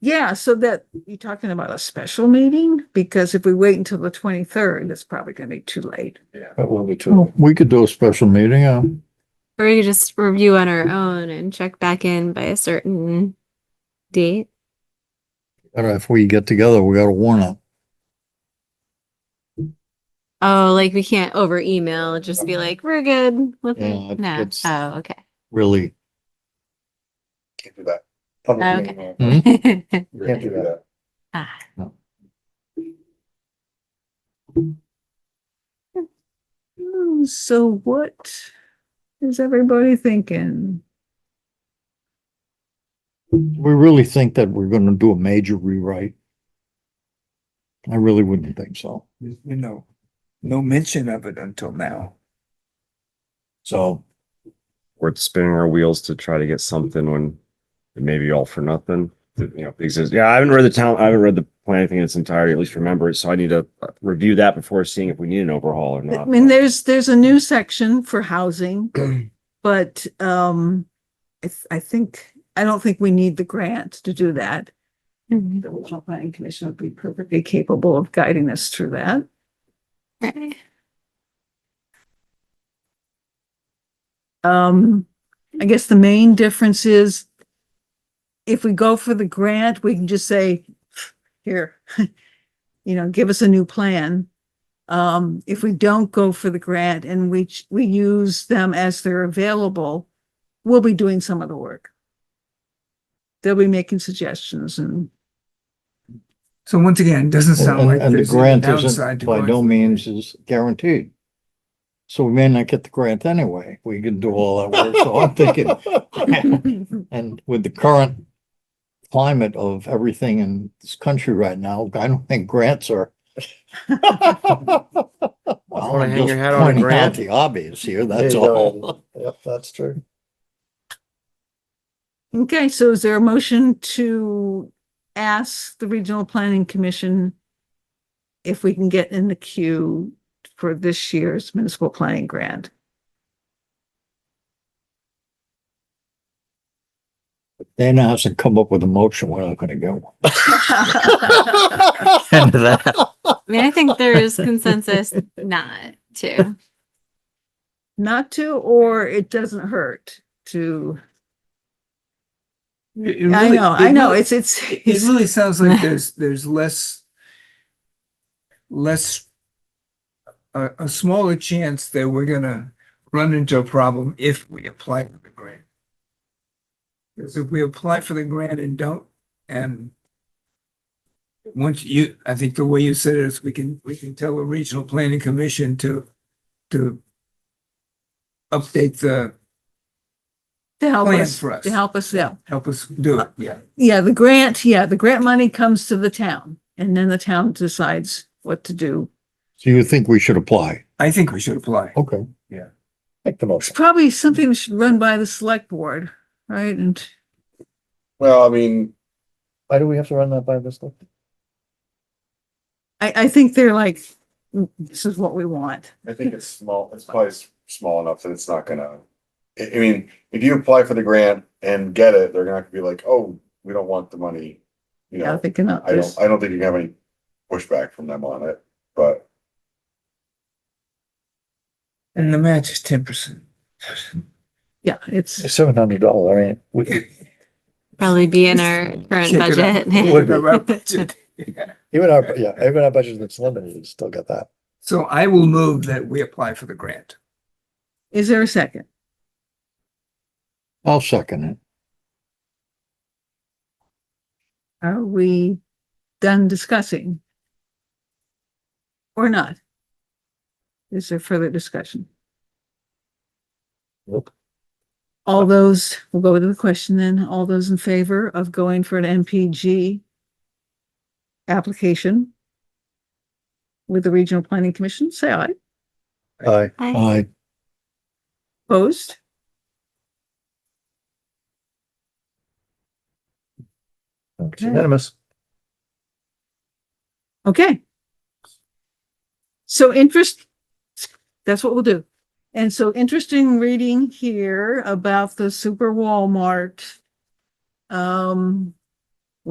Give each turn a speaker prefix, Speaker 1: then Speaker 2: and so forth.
Speaker 1: Yeah, so that, you're talking about a special meeting? Because if we wait until the twenty-third, it's probably gonna be too late.
Speaker 2: That will be
Speaker 3: Oh.
Speaker 2: too.
Speaker 4: We could do a special meeting, uh,
Speaker 5: Or we could just review on our own and check back in by a certain date.
Speaker 4: but if we get together, we gotta warn up.
Speaker 5: Oh, like we can't over email, just be like, we're good. with it."
Speaker 4: Yeah,
Speaker 5: No.
Speaker 4: Uh, it's-
Speaker 5: Oh, okay.
Speaker 4: Really,
Speaker 2: Can't do that. Public
Speaker 5: Okay.
Speaker 2: meeting,
Speaker 4: Hmm?
Speaker 2: uh, Can't do that.
Speaker 5: Oh, Ah,
Speaker 1: Hmm, So what is everybody thinking?
Speaker 4: we really think that we're gonna do a major rewrite. I really wouldn't think so.
Speaker 3: There's been no, no mention of it until now.
Speaker 4: So,
Speaker 6: we're spinning our wheels to try to get something when it may be all for nothing. You know, because, yeah, I haven't read the town, I haven't read the plan, I think in its entirety, at least remember it, so I need to uh, review that before seeing if we need an overhaul or
Speaker 1: I
Speaker 6: not.
Speaker 1: mean, there's, there's a new section for housing, but, um, I, th- I think, I don't think we need the grant to do that.
Speaker 5: mhm.
Speaker 1: The regional planning commission would be perfectly capable of guiding us through that.
Speaker 5: Right.
Speaker 1: Um, I guess the main difference is if we go for the grant, we can just say, here, you know, give us a new plan. Um, if we don't go for the grant and we, ch- we use them as they're available, we'll be doing some of the work. They'll be making suggestions and
Speaker 3: So once again, it doesn't sound like
Speaker 4: and and the
Speaker 3: there's any
Speaker 4: grant
Speaker 3: downside
Speaker 4: isn't,
Speaker 3: to
Speaker 4: by
Speaker 3: going.
Speaker 4: no means is guaranteed. So we may not get the grant anyway. We can do all that work, so I'm thinking, And with the current climate of everything in this country right now, I don't think grants are.
Speaker 6: Wanna hang your hat on a
Speaker 4: Pointing out
Speaker 6: grant?
Speaker 4: The obvious here, that's
Speaker 2: There you
Speaker 4: all.
Speaker 2: go. Yep, that's true.
Speaker 1: Okay, so is there a motion to ask the Regional Planning Commission if we can get in the queue for this year's municipal planning grant?
Speaker 4: Dana hasn't come up with a motion, we're not gonna get one. End of that.
Speaker 5: I mean, I think there is consensus not to.
Speaker 1: Not to, or it doesn't hurt to, I know, I know, it's, it's,
Speaker 3: It
Speaker 1: it's-
Speaker 3: really sounds like there's, there's less, less, a, a smaller chance that we're gonna run into a problem if we apply for the grant. Because if we apply for the grant and don't, and once you, I think the way you said it is we can, we can tell the regional planning commission to, to update the,
Speaker 1: to help
Speaker 3: Plan
Speaker 1: us,
Speaker 3: for us.
Speaker 1: to help us, yeah.
Speaker 3: help us do it, yeah.
Speaker 1: Yeah, the grant, yeah, the grant money comes to the town and then the town decides what to do.
Speaker 4: So you think we should apply?
Speaker 3: I think we should apply.
Speaker 4: Okay.
Speaker 2: Make the
Speaker 1: It's
Speaker 2: motion.
Speaker 1: probably something that should run by the select board, right? And
Speaker 2: Well, I mean. Why do we have to run that by this? one?
Speaker 1: I, I think they're like, "Mm, this is what we want.
Speaker 7: I think it's small, it's probably s- small enough that it's not gonna, I, I mean, if you apply for the grant and get it, they're not gonna be like, oh, we don't want the money. You
Speaker 1: Yeah,
Speaker 7: know,
Speaker 1: they cannot,
Speaker 7: I
Speaker 1: this.
Speaker 7: don't, I don't think you can have any pushback from them on it, but
Speaker 3: And the match is ten percent.
Speaker 1: yeah, it's,
Speaker 2: It's seven hundred dollar, I mean, we,
Speaker 5: Probably be in our current budget.
Speaker 2: even our, yeah, even our budget that's limited, we still got that.
Speaker 3: So I will move that we apply for the grant.
Speaker 1: is there a second?
Speaker 4: I'll second it.
Speaker 1: Are we done discussing? Or not? Is there further discussion?
Speaker 2: Nope.
Speaker 1: All those, we'll go to the question then. All those in favor of going for an MPG application with the Regional Planning Commission, say aye.
Speaker 2: Aye.
Speaker 5: Hi.
Speaker 4: I,
Speaker 1: Opposed?
Speaker 2: It's Unanimous.
Speaker 1: Okay. So interest, that's what we'll do. And so interesting reading here about the super Walmart. Um,